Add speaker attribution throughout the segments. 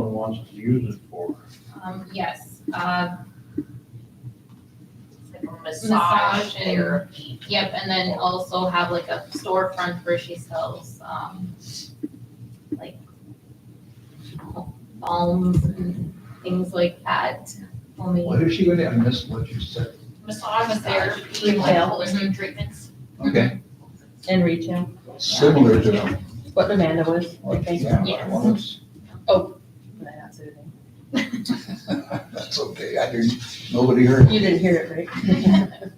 Speaker 1: wants to use it for.
Speaker 2: Um, yes, uh,
Speaker 3: It's like a
Speaker 2: Massage
Speaker 3: massage
Speaker 2: and-
Speaker 3: therapy.
Speaker 2: yep, and then also have like a storefront where she sells, um, like balms and things like that, homemade.
Speaker 1: What is she gonna, I missed what you said.
Speaker 3: Massage therapy, like
Speaker 4: Retail.
Speaker 3: holistic treatments.
Speaker 1: Okay,
Speaker 4: And retail,
Speaker 1: similar to them.
Speaker 4: what Amanda was, I think.
Speaker 1: Yeah,
Speaker 2: Yes.
Speaker 1: well, it's- That's okay, I didn't, nobody heard.
Speaker 4: You didn't hear it, right?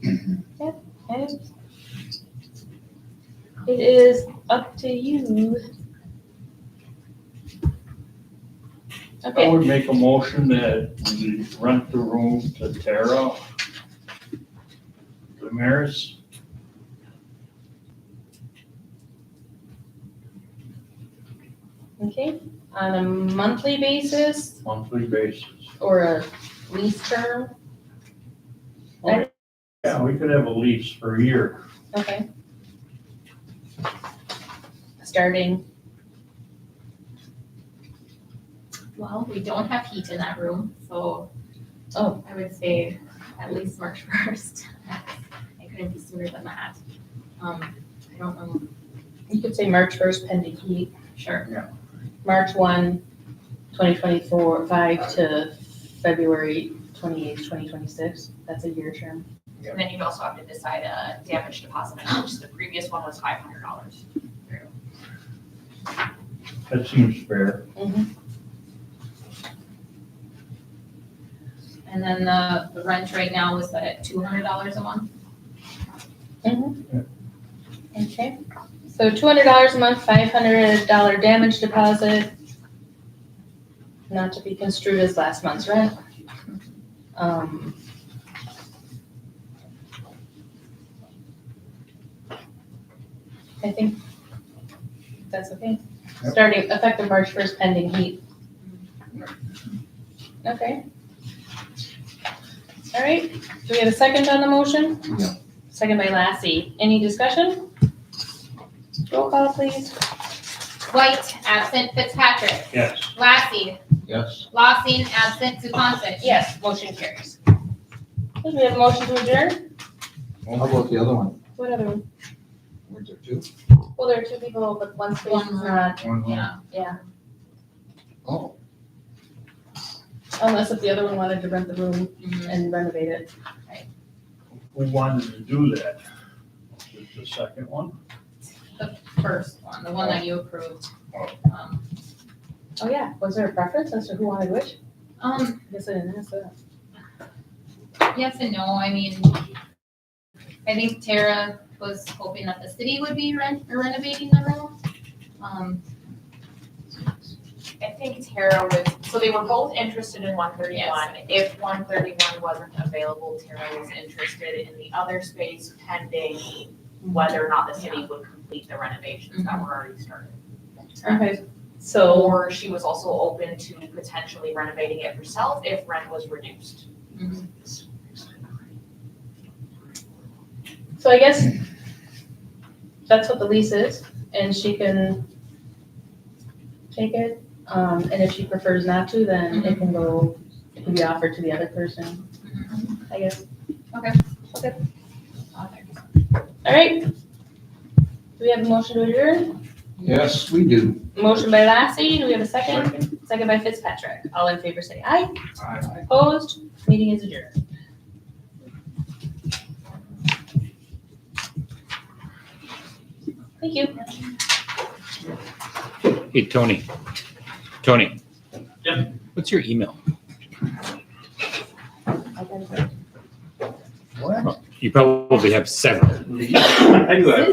Speaker 4: Okay. It is up to you.
Speaker 5: I
Speaker 4: Okay,
Speaker 5: would make a motion that we rent the room to Tara Damaris.
Speaker 4: okay, on a monthly basis
Speaker 5: monthly basis.
Speaker 4: or a lease term,
Speaker 5: Yeah, we could have a lease for a year.
Speaker 4: okay? Starting,
Speaker 2: Well, we don't have heat in that room, so.
Speaker 4: Oh.
Speaker 2: I would say at least March first. It couldn't be sooner than that. Um, I don't know,
Speaker 4: you could say March first pending heat.
Speaker 2: sure,
Speaker 4: March 1, 2024, 5 to February 28, 2026. That's a year term.
Speaker 3: And then you'd also have to decide a damage deposit, which the previous one was five hundred dollars.
Speaker 5: That seems fair.
Speaker 2: and then the, the rent right now is at two hundred dollars a month.
Speaker 4: Okay. So $200 a month, $500 damage deposit, not to be construed as last month's rent. Um, I think that's okay.
Speaker 1: Yep.
Speaker 4: Starting effective March 1st pending heat. Okay. All right, do we have a second on the motion?
Speaker 1: No.
Speaker 4: Second by Lassie. Any discussion? Roll call, please.
Speaker 2: White, absent Fitzpatrick,
Speaker 5: Yes.
Speaker 2: Lassie,
Speaker 1: Yes,
Speaker 2: Lossing, absent Zupansich.
Speaker 4: Yes, motion carries. Do we have a motion to adjourn?
Speaker 1: how about the other one?
Speaker 4: What other one?
Speaker 1: Were there two?
Speaker 4: Well, there are two people, but one's
Speaker 2: One.
Speaker 4: not,
Speaker 2: Yeah,
Speaker 1: Oh,
Speaker 4: unless if the other one wanted to rent the room
Speaker 2: mhm.
Speaker 4: and renovate it.
Speaker 5: Who wanted to do that? Is the second one?
Speaker 2: the first one, the one that you approved. Um,
Speaker 4: Oh, yeah. Was there a preference as to who wanted which?
Speaker 2: Um,
Speaker 4: I guess I didn't ask that.
Speaker 2: yes and no, I mean, I think Tara was hoping that the city would be ren- renovating the room. Um,
Speaker 3: I think Tara was, so they were both interested in one thirty-one. If one thirty-one wasn't available, Tara was interested in the other space pending whether or not the city would complete the renovations that were already started.
Speaker 4: Okay, so,
Speaker 3: Or she was also open to potentially renovating it herself if rent was reduced.
Speaker 4: so I guess that's what the lease is, and she can take it. Um, and if she prefers not to, then it can go, it can be offered to the other person, I guess. All right. Do we have a motion to adjourn?
Speaker 1: yes, we do.
Speaker 4: Motion by Lassie, do we have a second? Second by Fitzpatrick. All in favor say aye. Opposed? Meeting is adjourned. Thank you.
Speaker 6: Hey, Tony. Tony.
Speaker 5: Yep.
Speaker 6: What's your email?
Speaker 1: What?
Speaker 6: You probably have seven.
Speaker 5: I do
Speaker 2: have